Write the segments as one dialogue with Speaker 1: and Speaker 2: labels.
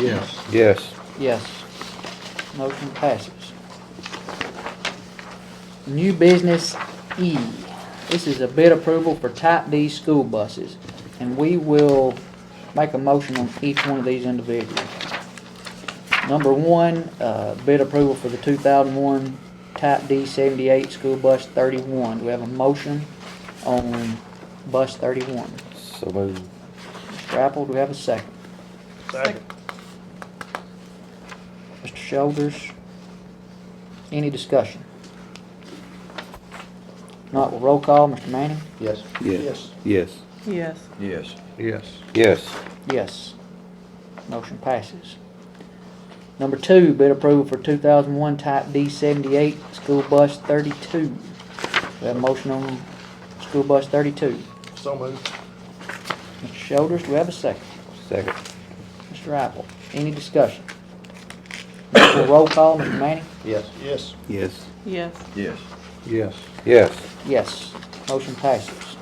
Speaker 1: Yes.
Speaker 2: Yes.
Speaker 3: Yes. Motion passes. New business E. This is a bid approval for type D school buses. And we will make a motion on each one of these individually. Number one, uh, bid approval for the two thousand one type D seventy-eight school bus thirty-one. Do we have a motion on bus thirty-one?
Speaker 2: So moved.
Speaker 3: Mr. Apple, do we have a second?
Speaker 1: Second.
Speaker 3: Mr. Shoulders, any discussion? Not, with roll call, Mr. Manning?
Speaker 1: Yes.
Speaker 2: Yes. Yes.
Speaker 4: Yes.
Speaker 1: Yes. Yes.
Speaker 2: Yes.
Speaker 3: Yes. Motion passes. Number two, bid approval for two thousand one type D seventy-eight, school bus thirty-two. Do we have a motion on school bus thirty-two?
Speaker 1: So moved.
Speaker 3: Mr. Shoulders, do we have a second?
Speaker 2: Second.
Speaker 3: Mr. Apple, any discussion? Not, with roll call, Mr. Manning?
Speaker 1: Yes. Yes.
Speaker 2: Yes.
Speaker 4: Yes.
Speaker 1: Yes. Yes.
Speaker 2: Yes.
Speaker 3: Yes, motion passes.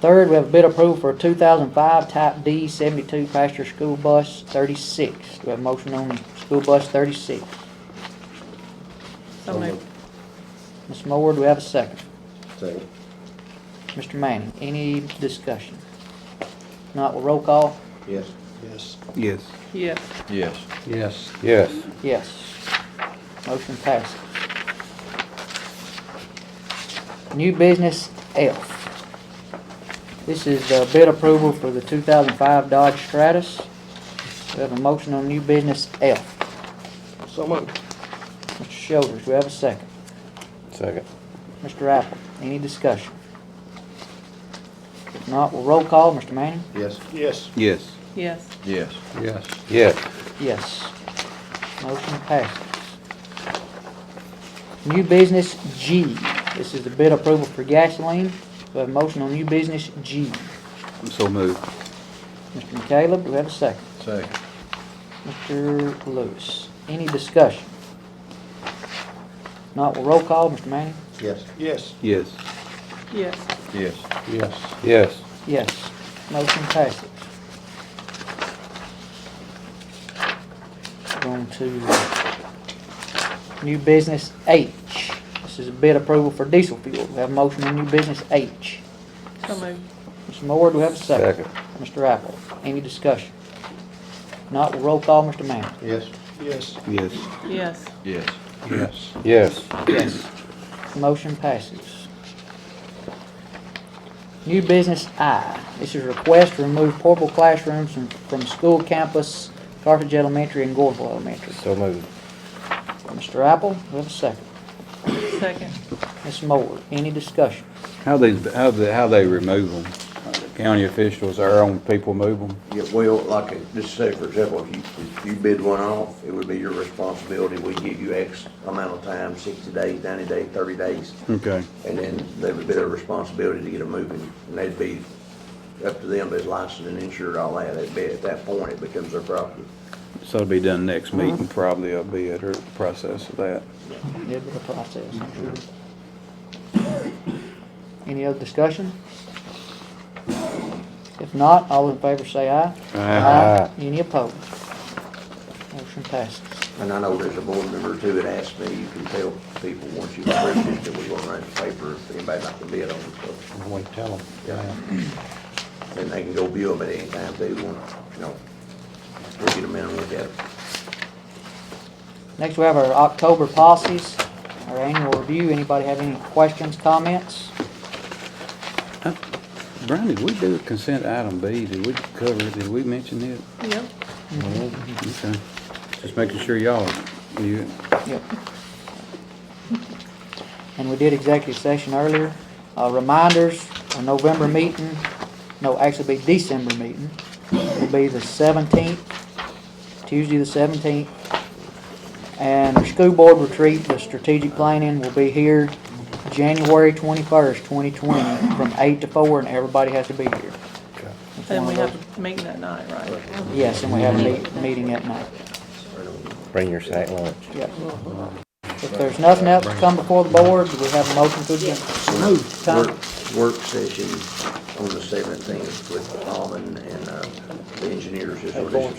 Speaker 3: Third, we have a bid approval for a 2005 Type D 72 passenger school bus 36. Do we have a motion on school bus 36?
Speaker 4: So moved.
Speaker 3: Ms. Moore, do we have a second?
Speaker 1: Second.
Speaker 3: Mr. Manning, any discussion? Not, we'll roll call.
Speaker 1: Yes. Yes.
Speaker 2: Yes.
Speaker 4: Yes.
Speaker 1: Yes. Yes.
Speaker 2: Yes.
Speaker 3: Yes. Motion passes. New business F. This is the bid approval for the 2005 Dodge Stratus. We have a motion on new business F.
Speaker 1: So moved.
Speaker 3: Mr. Shoulders, we have a second.
Speaker 2: Second.
Speaker 3: Mr. Apple, any discussion? If not, we'll roll call. Mr. Manning?
Speaker 1: Yes. Yes.
Speaker 2: Yes.
Speaker 4: Yes.
Speaker 1: Yes. Yes.
Speaker 2: Yes.
Speaker 3: Yes. Motion passes. New business G. This is the bid approval for gasoline. We have a motion on new business G.
Speaker 2: So moved.
Speaker 3: Mr. McCaleb, do we have a second?
Speaker 1: Second.
Speaker 3: Mr. Lewis, any discussion? Not, we'll roll call. Mr. Manning?
Speaker 1: Yes. Yes.
Speaker 2: Yes.
Speaker 4: Yes.
Speaker 1: Yes. Yes.
Speaker 2: Yes.
Speaker 3: Yes. Motion passes. Going to new business H. This is a bid approval for diesel fuel. We have a motion on new business H.
Speaker 4: So moved.
Speaker 3: Mr. Moore, do we have a second? Mr. Apple, any discussion? Not, we'll roll call, Mr. Manning.
Speaker 1: Yes. Yes.
Speaker 2: Yes.
Speaker 4: Yes.
Speaker 1: Yes. Yes.
Speaker 2: Yes.
Speaker 3: Yes. Motion passes. New business I, this is request to remove portable classrooms from, from school campus, Carthage Elementary and Gorville Elementary.
Speaker 2: So moved.
Speaker 3: Mr. Apple, we have a second.
Speaker 4: Second.
Speaker 3: Ms. Moore, any discussion?
Speaker 2: How they, how they, how they remove them? County officials, our own people move them?
Speaker 5: Yeah, well, like, uh, just say for example, if you, if you bid one off, it would be your responsibility, we give you X amount of time, sixty days, ninety days, thirty days,
Speaker 2: Okay.
Speaker 5: and then they would be their responsibility to get them moving, and they'd be, up to them, they're licensed and insured, all that, they'd be, at that point, it becomes their property.
Speaker 2: So it'll be done next meeting, probably, I'll be at her process of that.
Speaker 3: Good with the process, I'm sure. Any other discussion? If not, all in favor say aye.
Speaker 2: Aye.
Speaker 3: Any opposed? Motion passes.
Speaker 5: And I know there's a board member too that asked me, you can tell people once you've approved it, that we're gonna write the paper, if anybody not gonna bid on it, so,
Speaker 1: Wait, tell them.
Speaker 5: then they can go view them at any time they want, you know, we'll get them in and look at them.
Speaker 3: Next, we have our October policies, our annual review. Anybody have any questions, comments?
Speaker 2: Brian, did we do consent item B? Did we cover, it? did we mention it?
Speaker 4: Yep.
Speaker 2: Okay. Just making sure y'all, you,
Speaker 3: Yep. And we did executive session earlier. Uh, reminders, our November meeting, no, actually be December meeting, will be the seventeenth, Tuesday the seventeenth. And our school board retreat, the strategic planning will be here January twenty-first, twenty twenty, from eight to four, and everybody has to be here. It's
Speaker 4: And
Speaker 3: one
Speaker 4: we
Speaker 3: of those-
Speaker 4: have a meeting that night, right?
Speaker 3: Yes, and we have a meet- meeting at night.
Speaker 6: Bring your sack lunch.
Speaker 3: Yep. If there's nothing else to come before the board, do we have a motion to adjourn? Tom?
Speaker 5: Work, work session on the seventeenth with Alvin and, uh, the engineers is what it's.